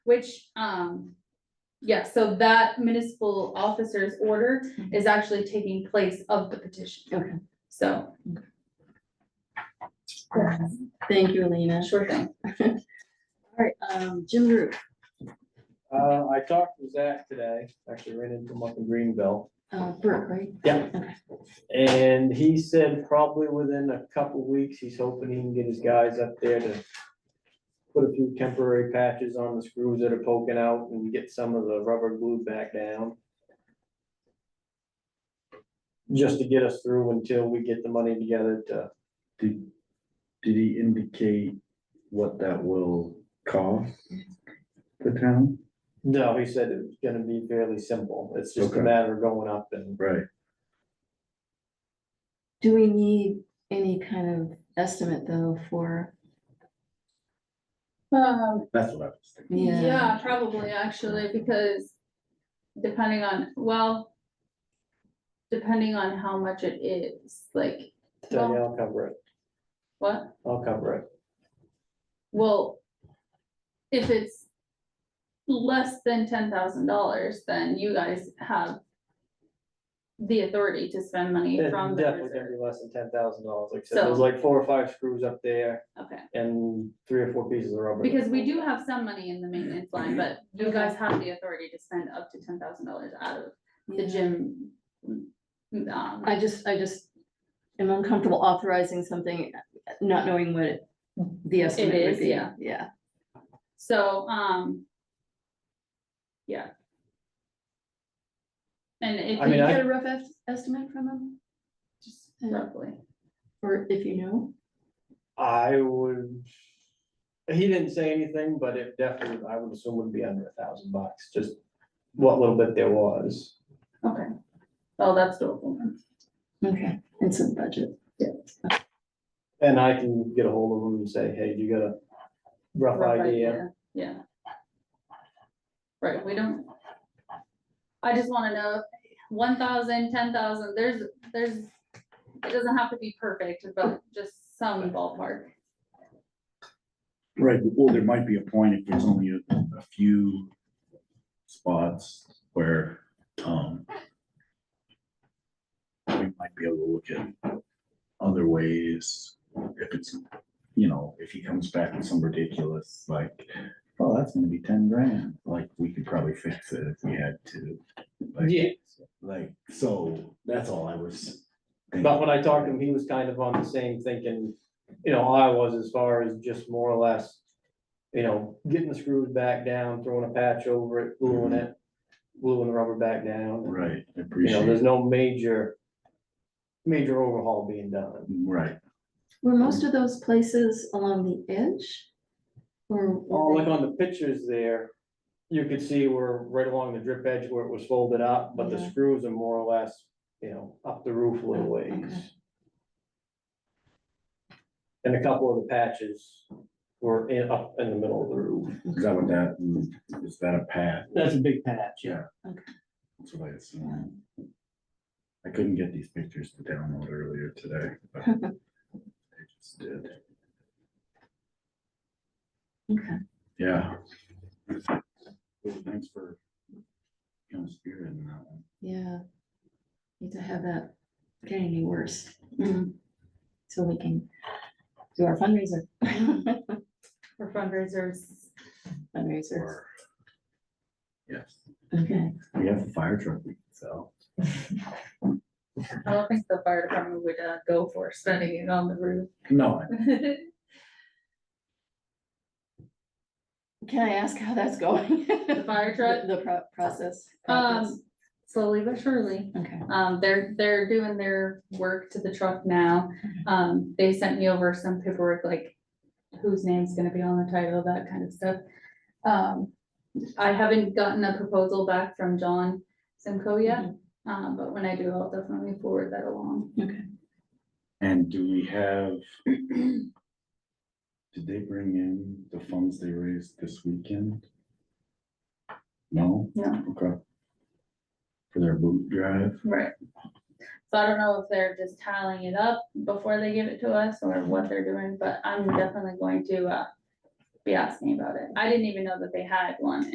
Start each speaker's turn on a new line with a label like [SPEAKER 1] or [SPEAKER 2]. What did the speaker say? [SPEAKER 1] which, um, yeah, so that municipal officer's order is actually taking place of the petition.
[SPEAKER 2] Mm-hmm. Okay.
[SPEAKER 1] So,
[SPEAKER 2] Thank you, Alina.
[SPEAKER 1] sure thing.
[SPEAKER 2] All right, um, Jim Root.
[SPEAKER 3] Uh, I talked with Zach today, actually ran into him up in Greenville,
[SPEAKER 2] uh, Brooke, right?
[SPEAKER 3] Yeah.
[SPEAKER 2] Okay.
[SPEAKER 3] and he said probably within a couple weeks, he's hoping he can get his guys up there to put a few temporary patches on the screws that are poking out and get some of the rubber glue back down. Just to get us through until we get the money together to,
[SPEAKER 4] Did, did he indicate what that will cost the town?
[SPEAKER 3] no, he said it's gonna be fairly simple, it's just a
[SPEAKER 4] Okay.
[SPEAKER 3] matter of going up and
[SPEAKER 4] Right.
[SPEAKER 2] Do we need any kind of estimate though for,
[SPEAKER 1] Um,
[SPEAKER 4] That's what I was thinking.
[SPEAKER 2] yeah?
[SPEAKER 1] yeah, probably actually, because depending on, well, depending on how much it is, like,
[SPEAKER 3] Tony, I'll cover it,
[SPEAKER 1] what?
[SPEAKER 3] I'll cover it.
[SPEAKER 1] Well, if it's less than ten thousand dollars, then you guys have the authority to spend money
[SPEAKER 3] It's
[SPEAKER 1] from the
[SPEAKER 3] Definitely gonna
[SPEAKER 1] reserve.
[SPEAKER 3] be less than ten thousand dollars, like I said, there's
[SPEAKER 1] So-
[SPEAKER 3] like four or five screws up there
[SPEAKER 1] Okay,
[SPEAKER 3] and three or four pieces of rubber.
[SPEAKER 1] because we do have some money in the maintenance
[SPEAKER 3] Mm-hmm.
[SPEAKER 1] line, but you guys have the authority to spend up to ten thousand dollars out of the
[SPEAKER 2] Yeah.
[SPEAKER 1] gym. um,
[SPEAKER 2] I just, I just am uncomfortable authorizing something, not knowing what it- the estimate
[SPEAKER 1] is,
[SPEAKER 2] would be.
[SPEAKER 1] yeah.
[SPEAKER 2] Yeah,
[SPEAKER 1] So, um. Yeah. And if
[SPEAKER 3] I
[SPEAKER 2] Did you
[SPEAKER 3] mean,
[SPEAKER 1] you
[SPEAKER 3] I-
[SPEAKER 2] get a rough es- estimate from him,
[SPEAKER 1] just roughly,
[SPEAKER 2] or if you know?
[SPEAKER 3] I would. He didn't say anything, but it definitely, I would assume would be under a thousand bucks, just what little bit there was.
[SPEAKER 1] okay, well, that's doable then.
[SPEAKER 2] Okay, it's in the budget.
[SPEAKER 3] And I can get a hold of him and say, hey, you got a rough
[SPEAKER 1] rough
[SPEAKER 3] idea?
[SPEAKER 1] Yeah. Right, we don't. I just wanna know, one thousand, ten thousand, there's, there's, it doesn't have to be perfect, but just some ballpark.
[SPEAKER 4] Right, well, there might be a point if there's only a, a few spots where, um, we might be able to look at other ways, if it's, you know, if he comes back with some ridiculous, like, oh, that's gonna be ten grand, like, we could probably fix it if we had to. like-
[SPEAKER 3] Yeah,
[SPEAKER 4] Like, so, that's all I was. thinking.
[SPEAKER 3] but when I talked to him, he was kind of on the same thinking, you know, I was as far as just more or less. You know, getting the screws back down, throwing a patch over it, gluing it, gluing the rubber back down.
[SPEAKER 4] Right, I
[SPEAKER 3] You know,
[SPEAKER 4] Mm-hmm. appreciate
[SPEAKER 3] there's
[SPEAKER 4] it,
[SPEAKER 3] no major, major overhaul being done.
[SPEAKER 4] right,
[SPEAKER 2] Were most of those places along the edge? Or? were
[SPEAKER 3] Oh,
[SPEAKER 2] they-
[SPEAKER 3] like on the pictures there, you could see we're right along the drip edge where it was folded up, but the
[SPEAKER 2] Yeah.
[SPEAKER 3] screws are more or less, you know, up the roof a little
[SPEAKER 2] Oh,
[SPEAKER 3] ways.
[SPEAKER 2] okay.
[SPEAKER 3] And a couple of the patches were in, up in the middle of the roof.
[SPEAKER 4] is that what that, mm, is that a path?
[SPEAKER 3] That's a big patch,
[SPEAKER 4] yeah.
[SPEAKER 2] Okay.
[SPEAKER 4] That's what I assumed. I couldn't get these pictures to download earlier today, but I just did.
[SPEAKER 2] Okay.
[SPEAKER 4] Yeah. Well, Thanks for, you know, spearheading that one.
[SPEAKER 2] Yeah. Need to have that getting any worse. Mm-hmm. So we can do our fundraiser.
[SPEAKER 1] For fundraisers,
[SPEAKER 2] Fundraisers,
[SPEAKER 4] Or- Yes,
[SPEAKER 2] okay.
[SPEAKER 4] we have a fire truck we can sell.
[SPEAKER 1] I don't think the fire department would, uh, go for spending it on the roof.
[SPEAKER 4] No,
[SPEAKER 2] Can I ask how that's going?
[SPEAKER 1] The fire truck,
[SPEAKER 2] The the pro- process. progress?
[SPEAKER 1] um, slowly but surely.
[SPEAKER 2] Okay,
[SPEAKER 1] Um, they're, they're doing their work to the truck now. Um, they sent me over some paperwork, like whose name's gonna be on the title, that kind of stuff. Um, I haven't gotten a proposal back from John Simco yet, um, but when I do, I'll definitely forward that along.
[SPEAKER 2] okay.
[SPEAKER 4] and do we have? Did they bring in the funds they raised this weekend? No?
[SPEAKER 1] No.
[SPEAKER 4] Okay. For their boot drive?
[SPEAKER 1] Right. So I don't know if they're just tallying it up before they give it to us or what they're doing, but I'm definitely going to, uh, be asking about it. I didn't even know that they had one